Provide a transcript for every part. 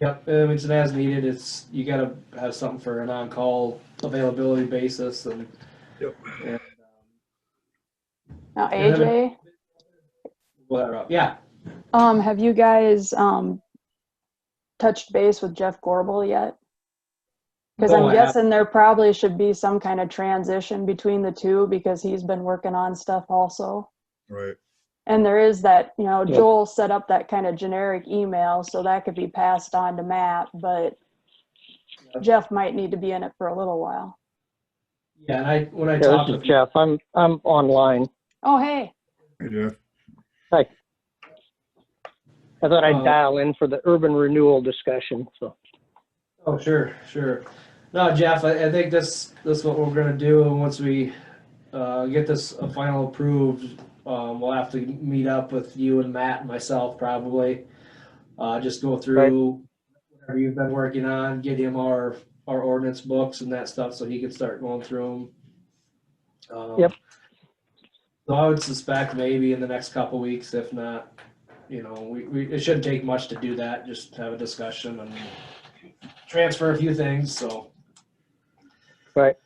Yep, um, it's an as needed, it's, you gotta have something for an on-call availability basis and. Yep. and, um, Now, Yeah, that- AJ, Whatever, yeah, um, have you guys, um, touched base with Jeff Gorbel yet? Because No, I I'm haven't. guessing there probably should be some kind of transition between the two because he's been working on stuff also. Right. And there is that, you know, Yeah. Joel set up that kind of generic email, so that could be passed on to Matt, but Yeah. Jeff might need to be in it for a little while. yeah, and I, when I Yeah, talked this is with, Jeff. I'm, I'm online. Oh, hey, Hey, Jeff. I thought Uh, I'd dial in for the urban renewal discussion, so. oh, sure, sure. No, Jeff, I, I think this, this is what we're gonna do, and once we, uh, get this uh, final approved, um, we'll have to meet up with you and Matt and myself probably. Uh, just go through whatever you've been working on, get him our, our ordinance books and that stuff, so he can start going through them. Yep. So I would suspect maybe in the next couple weeks, if not, you know, we, we, it shouldn't take much to do that, just have a discussion and transfer a few things, so. Right.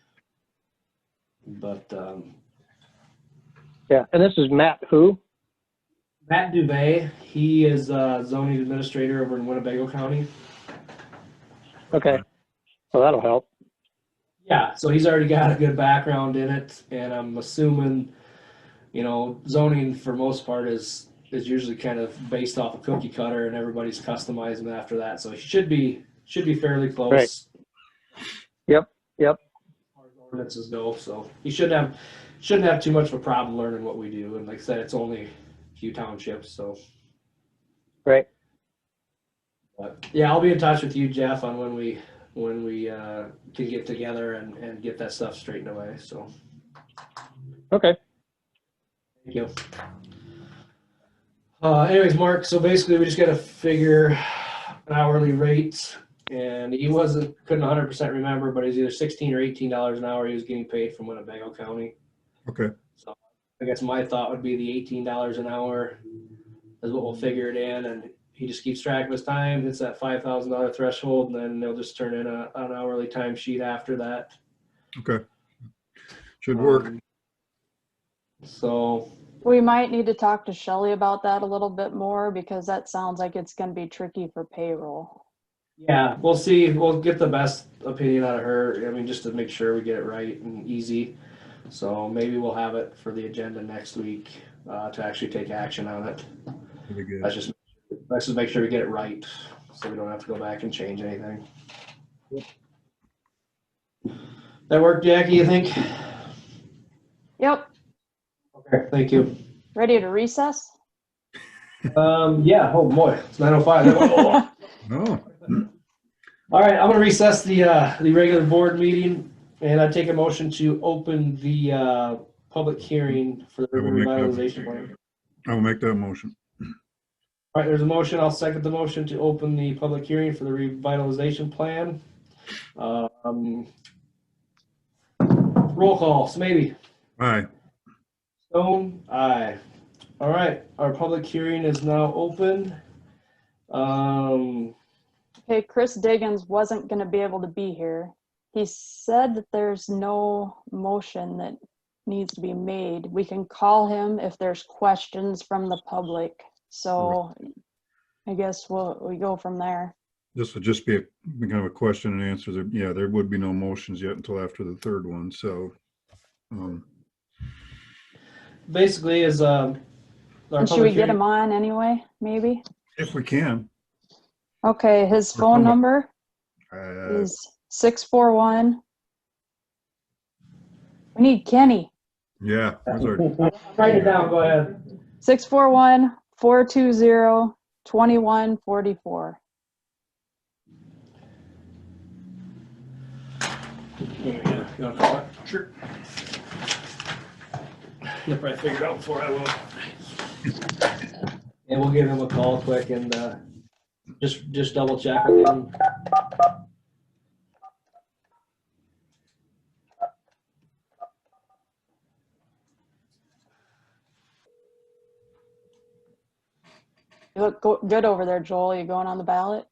But, um, Yeah, and this is Matt who? Matt Dubay, he is uh, zoning administrator over in Winnebago County. Okay. Well, that'll help. Yeah, so he's already got a good background in it, and I'm assuming, you know, zoning for most part is is usually kind of based off a cookie cutter, and everybody's customizing after that. So he should be should be fairly close. Yep, yep. As far as ordinances go, so he shouldn't have shouldn't have too much of a problem learning what we do. And like I said, it's only a few townships, so. Right. But yeah, I'll be in touch with you, Jeff, on when we when we uh, can get together and and get that stuff straightened away. So. Okay. Thank you. Uh, anyways, Mark, so basically we just gotta figure an hourly rate and he wasn't, couldn't hundred percent remember, but he's either sixteen or eighteen dollars an hour he was getting paid from Winnebago County. Okay. So I guess my thought would be the eighteen dollars an hour is what we'll figure it in and he just keeps track of his time, hits that five thousand dollar threshold and then they'll just turn in a, an hourly timesheet after that. Okay. Should work. Um, So, we might need to talk to Shelley about that a little bit more because that sounds like it's gonna be tricky for payroll. Yeah, we'll see. We'll get the best opinion out of her. I mean, just to make sure we get it right and easy. So maybe we'll have it for the agenda next week uh, to actually take action on it. That'd be good. Let's just, let's just make sure we get it right, so we don't have to go back and change anything. That work, Jackie, you think? Yep, Okay, thank you. ready to recess? Um, yeah, oh boy, it's nine oh five. No, All right, I'm gonna recess the, uh, the regular board meeting and I take a motion to open the, uh, public hearing for the I will river make that. revitalization plan. I will make that motion. All right, there's a motion. I'll second the motion to open the public hearing for the revitalization plan. Um, Roll call, Smitty, Aye. Stone, aye. All right, our public hearing is now open. Um, Okay, Chris Diggins wasn't gonna be able to be here. He said that there's no motion that needs to be made. We can call him if there's questions from the public, so I guess we'll, we go from there. This would just be a kind of a question and answer. There- Yeah, there would be no motions yet until after the third one, so. um, basically is, um. our And should public we get hearing- him on anyway, maybe? If we can. Okay, his Or phone phone number uh, is six four one. We need Kenny, Yeah, that's our- Write it down, go ahead. six four one, four two zero, twenty-one forty-four. Yeah, you wanna call it? Sure. You'll probably figure it out before I will. And we'll give him a call quick and, uh, just, just double check with him. You look go- good over there, Joel. You going on the ballot?